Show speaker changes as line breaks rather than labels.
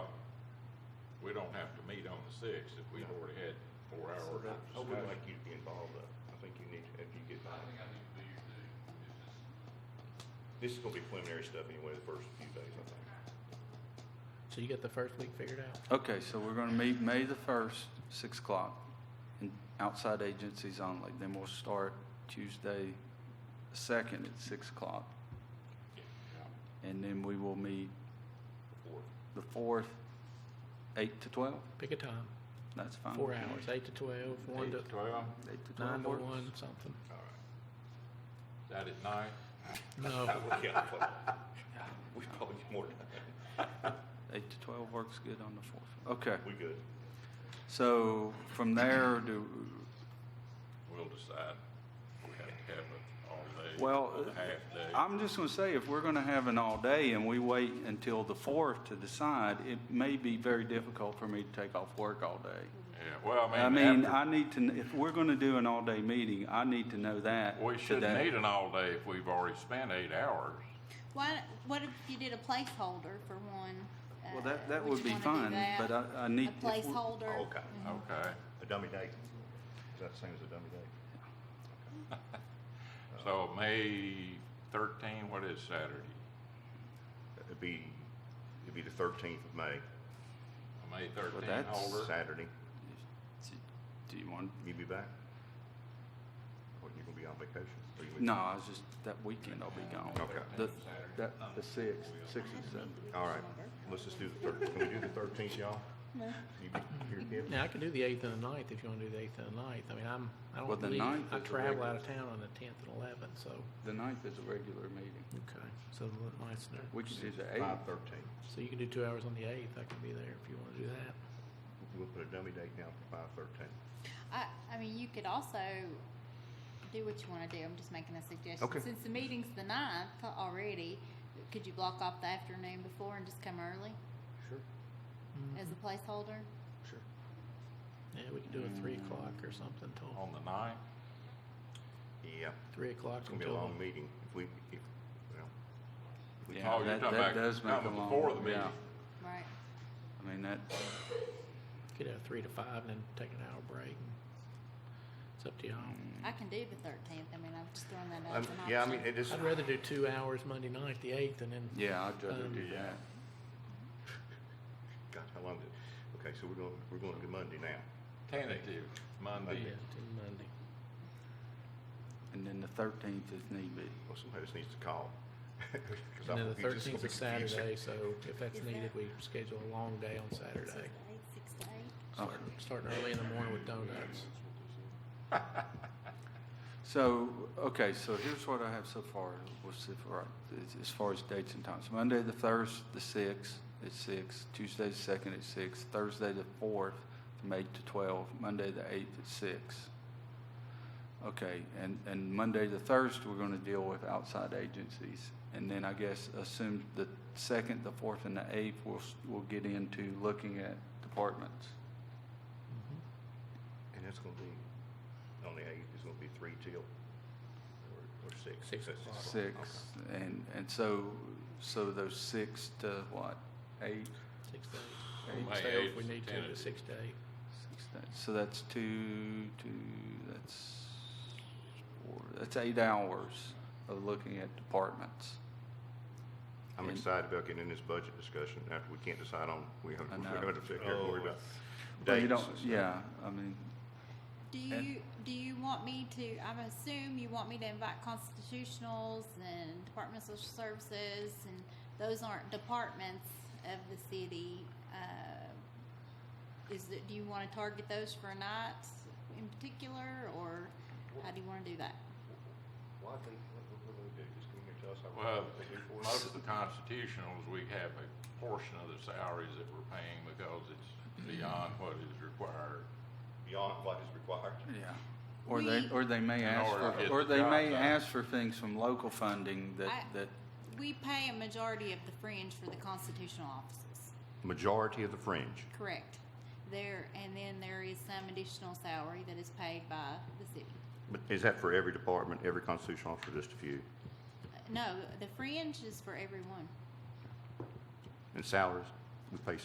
don't have to meet on the sixth if we've already had four hours of
I would like
discussion.
you to be involved though. I think you need, if you get,
I think I need to do your thing. It's just,
this is gonna be preliminary stuff anyway, the first few days, I think.
So you got the first week figured out?
Okay, so we're gonna meet May the first, six o'clock, and outside agencies only. Then we'll start Tuesday second at six o'clock. And then we will meet the fourth, eight to twelve,
Pick a time,
that's fine.
four hours, eight to twelve, one
Eight
to,
to twelve,
Um, Eight to
nine
twelve
to
works.
one, something.
all right. Is that at night?
No,
Yeah, but- We probably need more time.
Eight to twelve works good on the fourth. Okay,
We good.
so from there, do,
We'll decide. We have to have it all day.
Well, uh,
or Half day.
I'm just going to say, if we're going to have an all day and we wait until the fourth to decide, it may be very difficult for me to take off work all day.
Yeah, well,
I
I mean,
mean,
after,
I need to, kn- if we're going to do an all day meeting, I need to know that.
we shouldn't
today.
need an all day if we've already spent eight hours.
Why, what if you did a placeholder for one?
Well,
uh,
that, that
you
would be
wanna do
fine,
that?
but I, I need.
A
if Oh, we're-
placeholder?
Oh, Okay.
Mm-hmm.
Okay,
A dummy date. Is that the same as a dummy date?
so May thirteen, what is Saturday?
It'd be, it'd be the thirteenth of May,
May thirteen
that's
holder?
Saturday.
Do you want,
You be back? Or you gonna be on vacation? Or you-
no, I was just, that weekend I'll be gone.
Okay.
The, that, the sixth, sixth and seventh.
All right, let's just do the thirteenth. Can we do the thirteenth, y'all?
No.
You be here, Kim?
now I can do the eighth and the ninth if you wanna do the eighth and the ninth. I mean, I'm, I
Well,
don't leave,
the ninth
I
is a
travel
regular.
out of town on the tenth and eleventh, so.
The ninth is a regular meeting.
Okay. So the ninth's there.
We could do the eighth.
Five thirteen.
So you can do two hours on the eighth, I can be there if you wanna do that.
We'll put a dummy date down for five thirteen.
I, I mean, you could also do what you wanna do, I'm just making a suggestion.
Okay.
Since the meeting's the ninth already, could you block off the afternoon before and just come early
Sure.
as a placeholder?
Sure.
Yeah, we could do a three o'clock or something till,
On the ninth?
Yeah,
three o'clock
it's gonna be a
until,
long meeting. If we, if, well,
Yeah,
Oh, you're
that,
talking
that
about
does make a
coming
long.
before the
yeah.
meeting.
Right,
I mean, that,
could have three to five and then take an hour break. and It's up to y'all.
Hmm.
I can do the thirteenth, I mean, I'm just throwing that out
um,
as an
yeah, I
option.
mean, it is,
I'd rather do two hours Monday night, the eighth, and then
yeah, I'd rather
Um,
do that.
God, how long did, okay, so we're going, we're going to Monday now.
Tentative, Monday.
Yeah, till Monday.
And then the thirteenth is need be.
Well, somebody just needs to call. 'Cause I
And then the
think it's just
thirteenth
gonna be
is
confusing.
Saturday, so if that's
Is
needed,
that-
we schedule a long day on Saturday.
Six to eight,
Okay.
Start- Starting early in the morning with donuts.
So, okay, so here's what I have so far, we'll see if, right, as, as far as dates and times. Monday, the first, the sixth, at six, Tuesday, the second, at six, Thursday, the fourth, from eight to twelve, Monday, the eighth, at six. Okay, and, and Monday the first, we're gonna deal with outside agencies. And then I guess assume the second, the fourth, and the eighth, we'll, s- we'll get into looking at departments.
And it's gonna be, on the eighth, it's gonna be three till, or, or six.
Six
That's-
o'clock.
Six, and, and so, so those six to what, eight?
Six
Eight.
days.
May
So if
eighth
we
is
need to,
tentative.
to six to eight.
Six days. So that's two, two, that's four, that's eight hours of looking at departments.
I'm
And-
excited about getting in this budget discussion after we can't decide on, we have,
I
we
know.
have to figure out,
Oh,
worry about
But you
dates.
don't,
and stuff.
yeah, I mean,
do
And-
you, do you want me to, I assume you want me to invite constitutionals and Department of Social Services, and those aren't departments of the city, uh, is it, do you wanna target those for a night in particular, or how do you wanna do that?
Well, I think, what, what we're gonna do, just come here and tell us how
Well,
we're gonna do for
most
us.
of the constitutionals, we have a portion of the salaries that we're paying because it's beyond what is required.
Beyond what is required.
yeah. Or they,
We-
or they may
In
ask
order to
for,
get
or
the
they
job
may
done.
ask for things from local funding that,
I-
that,
We pay a majority of the fringe for the constitutional offices,
Majority of the fringe.
correct? There, and then there is some additional salary that is paid by the city.
But is that for every department, every constitutional officer, just a few?
Uh, No, the fringe is for everyone.
And salaries, we pay